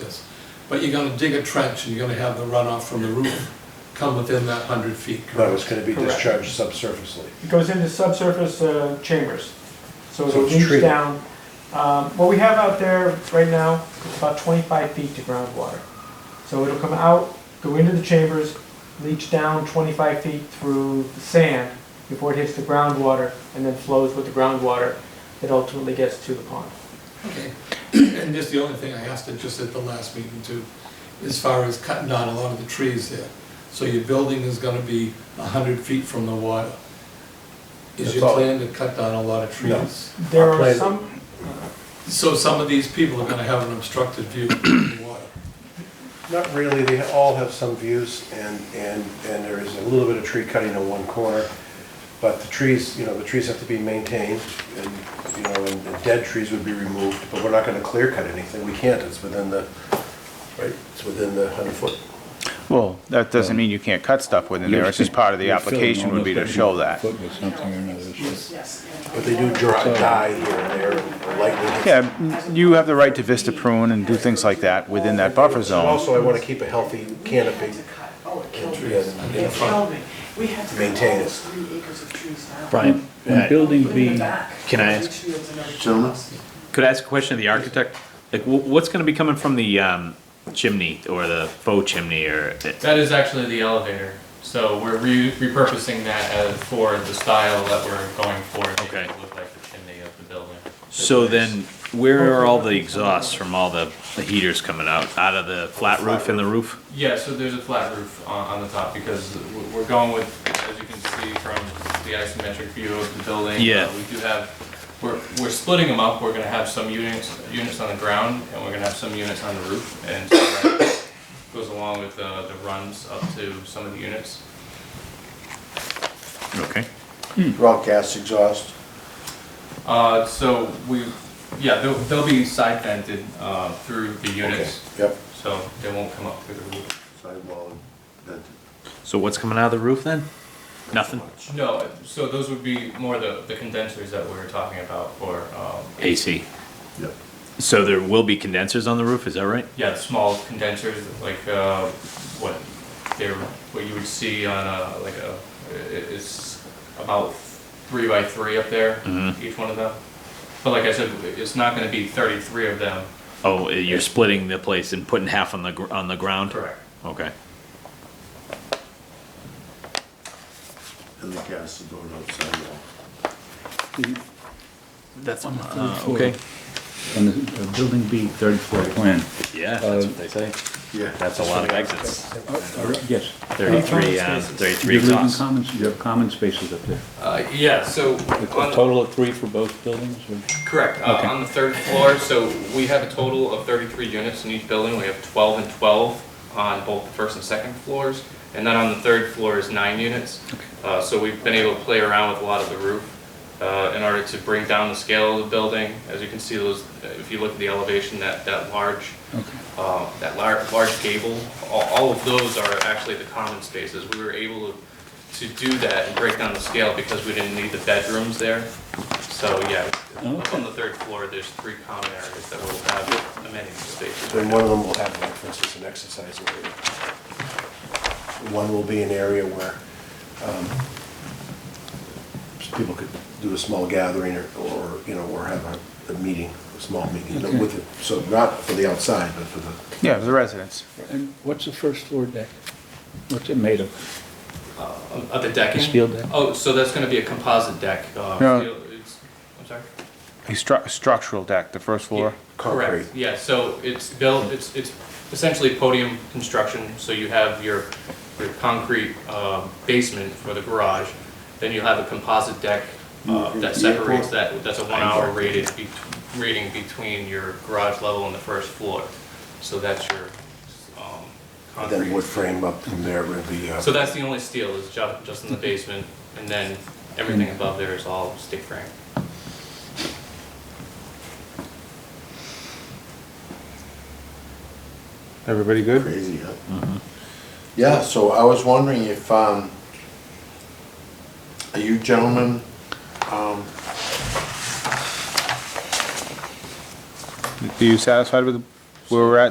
is. But you're gonna dig a trench and you're gonna have the runoff from the roof come within that hundred feet, No, correct? it's gonna be Correct. discharged subsurfacely. It goes into subsurface uh, chambers, so So it'll it's leach treated. down. Um, What we have out there right now is about 25 feet to groundwater. So it'll come out, go into the chambers, leach down 25 feet through the sand before it hits the groundwater, and then flows with the groundwater that ultimately gets to the pond. Okay. And just the only thing I asked it just at the last meeting too, as far as cutting down a lot of the trees there. So your building is gonna be hundred feet from the water. Is That's your all. plan to cut down a lot of No. trees? There Our are plan- some, So some of these people are gonna have an obstructed view of the water. Not really, they all have some views, and, and, and there is a little bit of tree cutting in one corner, but the trees, you know, the trees have to be maintained, and, you know, and the dead trees would be removed, but we're not gonna clear cut anything, we can't, it's within the, right, it's within the hundred foot. Well, that doesn't mean you can't cut stuff within there, it's just part of the You're filling application would be to almost show every that. Foot with something or another. so- uh, But they do dry, die here and there, and lightly. Yeah, m- you have the right to vista prune and do things like that within that buffer And zone. Also, I wanna keep a healthy canopy, Oh, it killed me. trees in the It front. killed me. We had to cut Maintain all it. those three acres of trees down. Brian, When uh, building Put it in B, the back. can I Make ask- sure it's another Gentlemen? house. could I ask a question of the architect? Like, wh- what's gonna be coming from the um, chimney or the faux chimney or? That is actually the elevator. So we're re- repurposing that as for the style that we're going for. to make it Okay. Look like the chimney of the building. So then, where are all the exhausts from all the the heaters coming out? Out of the flat roof and the roof? Yeah, so there's a flat roof on, on the top because we're- we're going with, as you can see from the isometric view of the building. Yeah. uh, We do have, we're, we're splitting them up. We're gonna have some units, units on the ground and we're gonna have some units on the roof. And so that goes along with uh, the runs up to some of the units. Okay. raw gas exhaust. Uh, so we, yeah, they'll, they'll be side vented, uh, through the units, yep, so they won't come up through the roof. sidewall, that, So what's coming out of the roof then? Nothing? No, so those would be more the, the condensers that we were talking about for, um, AC. yep. So there will be condensers on the roof, is that right? yeah, small condensers, like, uh, what they're, what you would see on a, like a, i- it's about three by three up there, each one of them. But like I said, it's not gonna be thirty-three of them. Oh, you're splitting the place and putting half on the, gr- on the ground? Okay. And the gas is going out sidewall. That's, uh, okay. okay. On the uh, building B, third floor Uh, plan. Yeah, that's what they say. Yeah. That's a lot of exits. Uh, Yes. Thirty-three, um, You thirty-three have living exhausts. commons, you have common spaces up there. Uh, yeah, so. A on- total of three for both buildings or? Correct, uh, Okay. on the third floor, so we have a total of thirty-three units in each building, we have twelve and twelve on both the first and second floors, and then on the third floor is nine units. Uh, so we've been able to play around with a lot of the roof, uh, in order to bring down the scale of the building, as you can see those, if you look at the elevation, that, that large, uh, that lar- large gable, all, all of those are actually the common spaces, we were able to, to do that and break down the scale because we didn't need the bedrooms there, so, yeah, up on the third floor, there's three common areas that will have amenity spaces. Then one of them will have, like, for instance, an exercise area. One will be an area where um, people could do a small gathering or, or, you know, or have a, a meeting, a small meeting Okay. with it. So not for the outside, but for the, Yeah, the residents. And what's the first floor deck? What's it made of? Of- Of Uh, the decking? The steel deck. Oh, so that's gonna be a composite deck. uh, No. steel- it's- I'm sorry? A stru- structural deck, the first floor. Concrete. Correct, yeah, so it's built, it's, it's essentially podium construction, so you have your, your concrete um, basement for the garage, then you have a composite deck uh, Mm-hmm. that separates that, that's a one-hour rated, bet- rating between your garage level and the first floor. So that's your um, then wood concrete. frame up from there with the, So uh, that's the only steel, is ju- just in the basement, and then everything above there is all stick frame. Everybody good? Crazy, huh? Mm-hmm. Yeah, so I was wondering if, um, are you gentlemen, um, Are you satisfied with where we're at